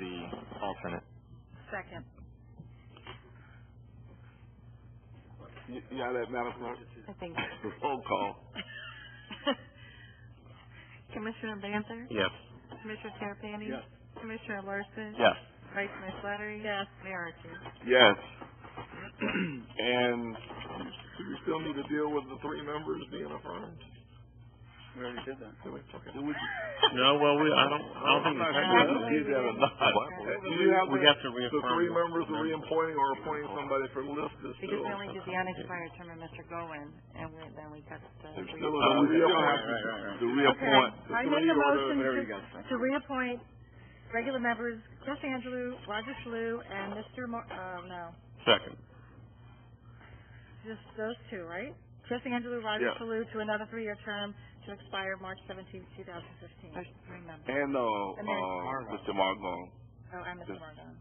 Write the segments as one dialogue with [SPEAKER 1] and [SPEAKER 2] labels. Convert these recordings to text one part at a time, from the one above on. [SPEAKER 1] the alternate.
[SPEAKER 2] Second.
[SPEAKER 3] You you got that, Madam Clerk?
[SPEAKER 2] I think.
[SPEAKER 3] Roll call.
[SPEAKER 2] Commissioner Banther?
[SPEAKER 1] Yes.
[SPEAKER 2] Commissioner Terrapini?
[SPEAKER 3] Yes.
[SPEAKER 2] Commissioner Larson?
[SPEAKER 1] Yes.
[SPEAKER 2] Vice Mayor Slattery? Yes. Mayor Archer?
[SPEAKER 3] Yes. And do we still need to deal with the three members being affirmed?
[SPEAKER 4] We already did that.
[SPEAKER 3] Do we? Okay. Do we-
[SPEAKER 1] No, well, we, I don't, I don't think
[SPEAKER 3] I'm not
[SPEAKER 1] we
[SPEAKER 3] sure
[SPEAKER 1] can.
[SPEAKER 3] if we did that or not.
[SPEAKER 1] What?
[SPEAKER 3] Do you have
[SPEAKER 1] We
[SPEAKER 3] the,
[SPEAKER 1] have to
[SPEAKER 3] the three
[SPEAKER 1] reaffirm.
[SPEAKER 3] members reappointing or appointing somebody for list is
[SPEAKER 2] Because
[SPEAKER 3] still?
[SPEAKER 2] we only did the unexpired term of Mr. Gowen, and we- then we got the.
[SPEAKER 3] There's
[SPEAKER 2] re-
[SPEAKER 3] still a
[SPEAKER 1] Uh,
[SPEAKER 3] reappoint.
[SPEAKER 4] Right, right, right, right.
[SPEAKER 2] I make
[SPEAKER 3] To reappoint. the three
[SPEAKER 2] a
[SPEAKER 3] or the-
[SPEAKER 2] motion
[SPEAKER 4] There you go.
[SPEAKER 2] To reappoint regular members, Chris Angelou, Roger Shalou, and Mr. Mo- oh, no,
[SPEAKER 1] Second.
[SPEAKER 2] just those two, right? Chris Angelou, Roger
[SPEAKER 3] Yeah.
[SPEAKER 2] Shalou, to another three-year term to expire March seventeenth, two thousand fifteen. There's three members.
[SPEAKER 3] And, uh,
[SPEAKER 2] And there's-
[SPEAKER 3] uh, Mr. Margot.
[SPEAKER 2] Oh, I'm Mr.
[SPEAKER 3] Just-
[SPEAKER 2] Margon.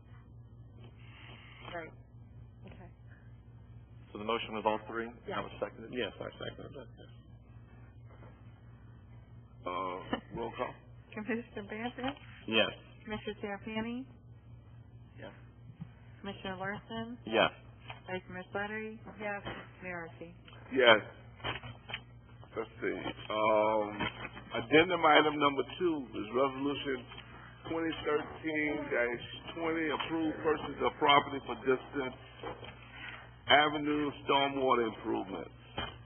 [SPEAKER 2] Right. Okay.
[SPEAKER 1] So the motion was all three?
[SPEAKER 2] Yeah.
[SPEAKER 1] was seconded? Yes, I seconded it.
[SPEAKER 3] Uh, roll call.
[SPEAKER 2] Commissioner Banther?
[SPEAKER 1] Yes.
[SPEAKER 2] Commissioner Terrapini?
[SPEAKER 4] Yes.
[SPEAKER 2] Commissioner Larson?
[SPEAKER 1] Yes.
[SPEAKER 2] Vice Mayor Slattery? Yes. Mayor Archie?
[SPEAKER 3] Yes. Let's see, um, addendum item number two is resolution twenty thirteen twenty, approved purchase of property for distance avenue stormwater improvements.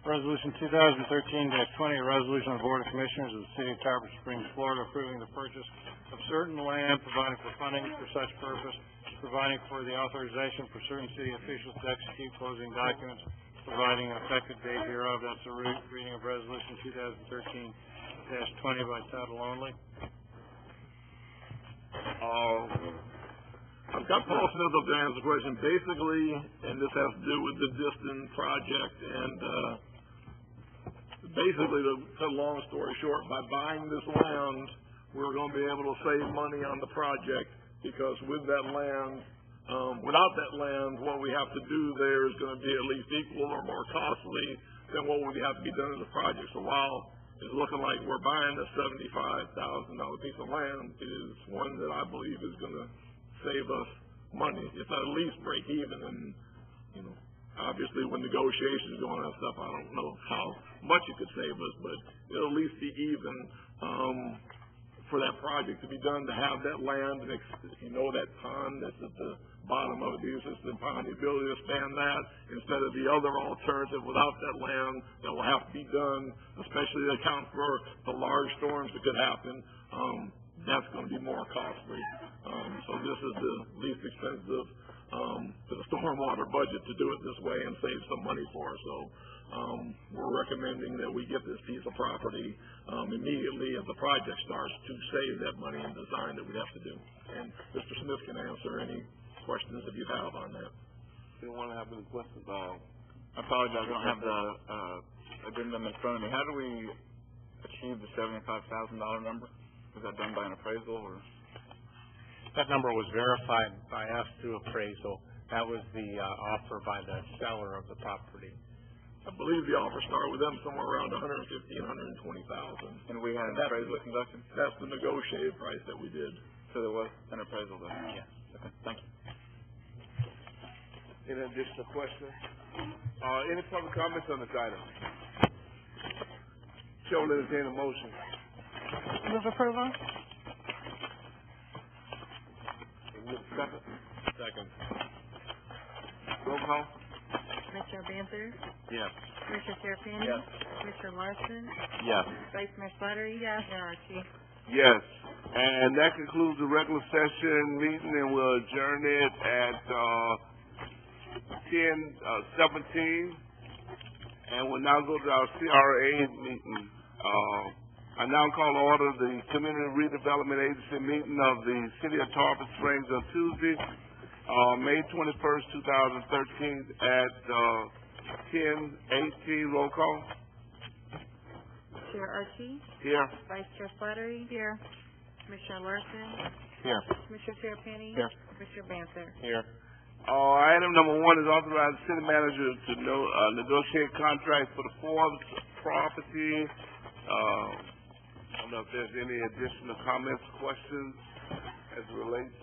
[SPEAKER 5] Resolution two thousand thirteen twenty, a resolution of the Board of Commissioners of the City of Tarpon Springs, Florida, approving the purchase of certain land, providing for funding for such purpose, providing for the authorization for certain city officials to execute closing documents, providing an effective date hereof. That's the re- reading of resolution two thousand thirteen twenty by title only.
[SPEAKER 3] Um, I've got Paul Smith up there to answer the question, basically, and this has to do with the Diston project, and, uh, basically, to cut a long story short, by buying this land, we're gonna be able to save money on the project, because with that land, um, without that land, what we have to do there is gonna be at least equal or more costly than what would have to be done in the project. So while it's looking like we're buying a seventy-five thousand dollar piece of land, it is one that I believe is gonna save us money, if not at least break even, and, you know, obviously, when negotiations go on and stuff, I don't know how much it could save us, but it'll at least be even, um, for that project to be done, to have that land, and ex- you know, that pond that's at the bottom of the existing pond, the ability to expand that, instead of the other alternative without that land that will have to be done, especially to account for the large storms that could happen, um, that's gonna be more costly. Um, so this is the least expensive, um, to the stormwater budget to do it this way and save some money for us. So, um, we're recommending that we get this piece of property, um, immediately as the project starts to save that money and design that we have to do. And Mr. Smith can answer any questions if you have on that.
[SPEAKER 4] Do you wanna have any questions, uh? I apologize, I don't have the, uh, addendum in front of me. How do we achieve the seventy-five thousand dollar number? Was that done by an appraisal or?
[SPEAKER 6] That number was verified by us through appraisal. That was the, uh, offer by the seller of the property.
[SPEAKER 3] I believe the offer started with them somewhere around a hundred and fifteen, hundred and twenty thousand.
[SPEAKER 4] And we had an
[SPEAKER 3] That's-
[SPEAKER 4] appraisal conducted,
[SPEAKER 3] That's the negotiated price that we did.
[SPEAKER 4] so there was an appraisal done? Yes. Okay, thank you.
[SPEAKER 3] Any additional questions? Uh, any public comments on this item? Chair will entertain a motion.
[SPEAKER 2] Move approval?
[SPEAKER 3] Second,
[SPEAKER 1] Second.
[SPEAKER 3] roll call?
[SPEAKER 2] Commissioner Banther?
[SPEAKER 1] Yes.
[SPEAKER 2] Commissioner Terrapini?
[SPEAKER 4] Yes.
[SPEAKER 2] Commissioner Larson?
[SPEAKER 1] Yes.
[SPEAKER 2] Vice Mayor Slattery? Yes. Mayor Archie?
[SPEAKER 3] Yes, and that concludes the regular session meeting, and we'll adjourn it at, uh, ten, uh, seventeen. And we'll now go to our CRA meeting. Uh, I now call to order the Community Redevelopment Agency meeting of the City of Tarpon Springs on Tuesday, uh, May twenty-first, two thousand thirteen, at, uh, ten eighteen, roll call,
[SPEAKER 2] Chair Archie?
[SPEAKER 3] here.
[SPEAKER 2] Vice Chair Slattery? Here. Commissioner Larson?
[SPEAKER 1] Here.
[SPEAKER 2] Commissioner Terrapini?
[SPEAKER 1] Here.
[SPEAKER 2] Commissioner Banther?
[SPEAKER 1] Here.
[SPEAKER 3] Uh, item number one is authorize the city manager to no, uh, negotiate contracts for the Forbes property. Uh, I don't know if there's any additional comments, questions as it relates